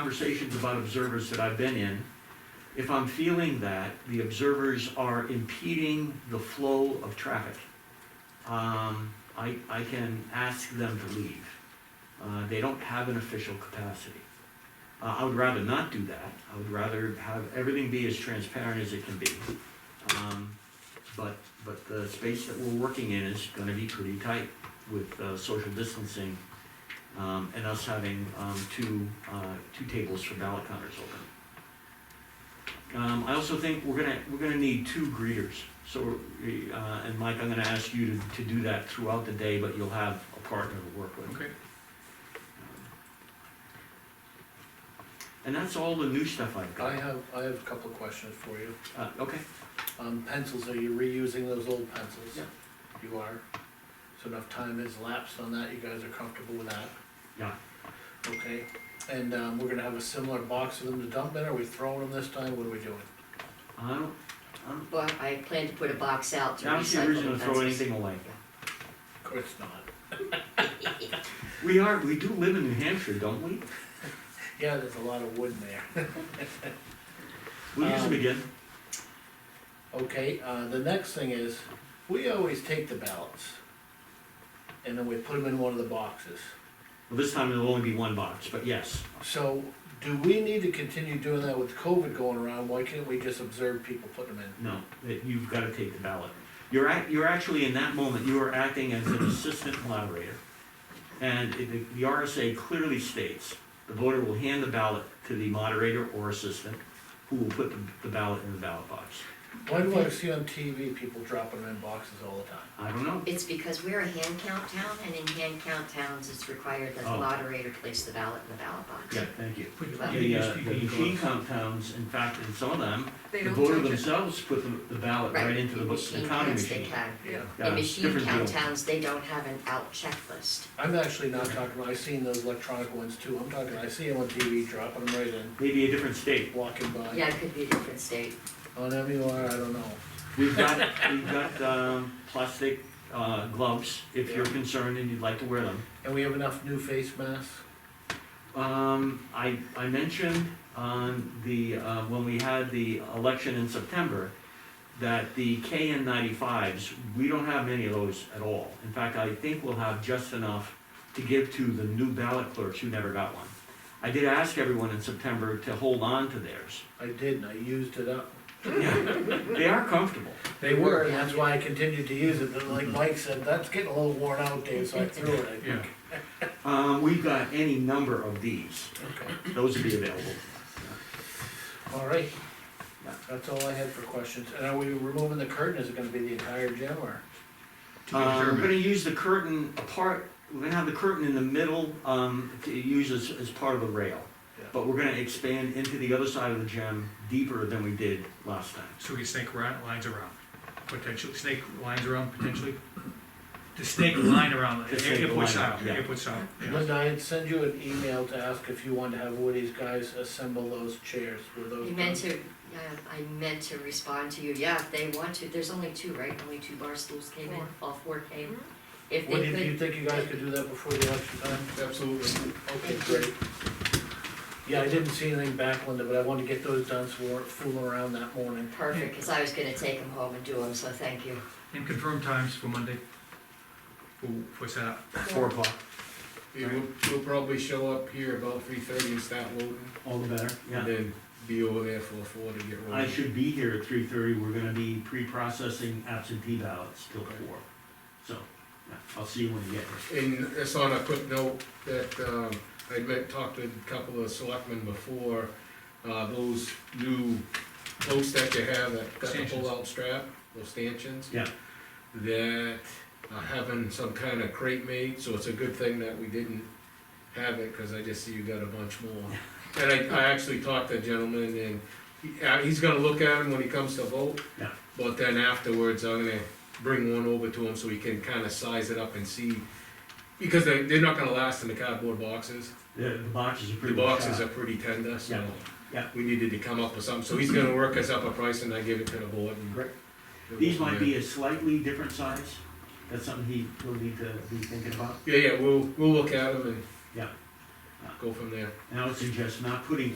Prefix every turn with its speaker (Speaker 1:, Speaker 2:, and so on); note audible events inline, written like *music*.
Speaker 1: conversations about observers that I've been in, if I'm feeling that the observers are impeding the flow of traffic, um, I, I can ask them to leave. Uh, they don't have an official capacity. Uh, I would rather not do that. I would rather have everything be as transparent as it can be. Um, but, but the space that we're working in is gonna be pretty tight with, uh, social distancing, um, and us having, um, two, uh, two tables for ballot counters open. Um, I also think we're gonna, we're gonna need two greeters, so, we- uh, and Mike, I'm gonna ask you to, to do that throughout the day, but you'll have a partner to work with. Um,
Speaker 2: Okay.
Speaker 1: And that's all the new stuff I've
Speaker 2: I
Speaker 1: got.
Speaker 2: have, I have a couple of questions for you.
Speaker 1: Uh, okay,
Speaker 2: Um, pencils, are you reusing those old pencils?
Speaker 1: Yeah.
Speaker 2: You are? So enough time has lapsed on that, you guys are comfortable with that?
Speaker 1: yeah.
Speaker 2: Okay, and, um, we're gonna have a similar box of them to dump in, are we throwing them this time, what are we doing?
Speaker 1: I don't, I don't,
Speaker 3: Well, I plan to put a box out to
Speaker 1: I don't see a reason
Speaker 3: recycle
Speaker 1: to
Speaker 3: the
Speaker 1: throw
Speaker 3: pencils.
Speaker 1: anything away.
Speaker 2: Of course not.
Speaker 1: We are, we do live in New Hampshire, don't we?
Speaker 2: Yeah, there's a lot of wood in there. *laughs*
Speaker 1: We'll use them
Speaker 2: Um,
Speaker 1: again.
Speaker 2: Okay, uh, the next thing is, we always take the ballots. And then we put them in one of the boxes.
Speaker 1: Well, this time it'll only be one box, but yes.
Speaker 2: So, do we need to continue doing that with COVID going around, why can't we just observe people putting them in?
Speaker 1: No, that you've gotta take the ballot. You're act, you're actually, in that moment, you are acting as an assistant moderator. And it- the the RSA clearly states, the voter will hand the ballot to the moderator or assistant, who will put the- the ballot in the ballot box.
Speaker 2: Why do I see on TV people dropping them in boxes all the time?
Speaker 1: I don't know.
Speaker 3: It's because we're a hand count town, and in hand count towns, it's required that the
Speaker 1: Oh.
Speaker 3: moderator place the ballot in the ballot box.
Speaker 1: Yeah, thank you.
Speaker 4: Put
Speaker 3: Well,
Speaker 1: The, uh, the machine compounds, in fact, in some of them,
Speaker 4: They
Speaker 1: the
Speaker 4: don't
Speaker 1: voter
Speaker 4: touch it.
Speaker 1: themselves put the, the ballot right into the
Speaker 3: in
Speaker 1: bo- the
Speaker 3: machine
Speaker 1: counting
Speaker 3: counts they
Speaker 1: machine.
Speaker 3: can.
Speaker 2: Yeah.
Speaker 1: Yeah,
Speaker 3: In
Speaker 1: it's
Speaker 3: machine
Speaker 1: different
Speaker 3: count
Speaker 1: deal.
Speaker 3: towns, they don't have an out checklist.
Speaker 2: I'm actually not talking, about- I've seen those electronic ones too, I'm talking, I see them on TV dropping them right in,
Speaker 1: Maybe a different state.
Speaker 2: walking by.
Speaker 3: Yeah, it could be a different state.
Speaker 2: On MUR, I don't know.
Speaker 1: We've got, we've got, um, plastic, uh, gloves, if you're
Speaker 2: Yeah.
Speaker 1: concerned and you'd like to wear them.
Speaker 2: And we have enough new face masks?
Speaker 1: Um, I, I mentioned on the, uh, when we had the election in September, that the KN ninety-fives, we don't have many of those at all. In fact, I think we'll have just enough to give to the new ballot clerks who never got one. I did ask everyone in September to hold on to theirs.
Speaker 2: I did, and I used it up.
Speaker 1: Yeah, They are comfortable.
Speaker 2: They were, Mm-hmm. and that's why I continued to use it, but like Mike said, that's getting a little worn out, Dave, so I threw it, I think.
Speaker 1: Um, we've got any number of these,
Speaker 2: Okay,
Speaker 1: those would be available.
Speaker 2: all right.
Speaker 1: Yeah.
Speaker 2: That's all I had for questions, and are we removing the curtain, is it gonna be the entire gym, or?
Speaker 1: Um, we're gonna use the curtain apart, we're gonna have the curtain in the middle, um, to use as, as part of the rail.
Speaker 2: Yeah.
Speaker 1: But we're gonna expand into the other side of the gym deeper than we did last time.
Speaker 4: So we snake ra- lines around, potentially, snake lines around potentially? The snake line around,
Speaker 1: The snake
Speaker 4: airport
Speaker 1: line,
Speaker 4: style,
Speaker 1: yeah.
Speaker 4: airport style, yeah.
Speaker 2: Linda, I had sent you an email to ask if you wanted to have Woody's guys assemble those chairs, were those
Speaker 3: You
Speaker 2: done?
Speaker 3: meant to, yeah, I meant to respond to you, yeah, if they want to, there's only two, right? Only two bar stools came in, all four came. If
Speaker 2: Woody,
Speaker 3: they
Speaker 2: do you
Speaker 3: could,
Speaker 2: think you guys could do that before the election time?
Speaker 5: Absolutely.
Speaker 2: Okay, great. Yeah, I didn't see anything back, Linda, but I wanted to get those done so we weren't fooling around that morning.
Speaker 3: perfect, because I was gonna take them home and do them, so thank you.
Speaker 4: And confirm times for Monday, for, for setup.
Speaker 1: Four o'clock,
Speaker 5: Yeah, we'll, we'll probably show up here about three thirty and start loading,
Speaker 1: all the better,
Speaker 5: and
Speaker 1: yeah.
Speaker 5: then be over there for four to get rolling.
Speaker 1: I should be here at three thirty, we're gonna be pre-processing absentee ballots till four. So, yeah, I'll see you when you get here.
Speaker 5: And that's on a quick note, that, um, I met, talked to a couple of selectmen before, uh, those new posts that you have that got the
Speaker 4: Stanchions.
Speaker 5: pull-out strap, those stanchions.
Speaker 1: Yeah.
Speaker 5: That are having some kind of crate made, so it's a good thing that we didn't have it, cause I just see you got a bunch more. And I, I actually talked to a gentleman and, he- uh, he's gonna look at them when he comes to vote.
Speaker 1: Yeah.
Speaker 5: But then afterwards, I'm gonna bring one over to him so he can kinda size it up and see because they, they're not gonna last in the cardboard boxes.
Speaker 1: The, the boxes are
Speaker 5: The
Speaker 1: pretty. much
Speaker 5: boxes
Speaker 1: out.
Speaker 5: are pretty tender, so
Speaker 1: Yeah, yeah.
Speaker 5: we needed to come up with something. So he's gonna work us up a price and I give it to the board. and-
Speaker 1: Great. These might be a slightly different size, that's something he will need to be thinking about.
Speaker 5: Yeah, yeah, we'll, we'll look at them and.
Speaker 1: Yeah.
Speaker 5: go from there.
Speaker 1: And I would suggest not putting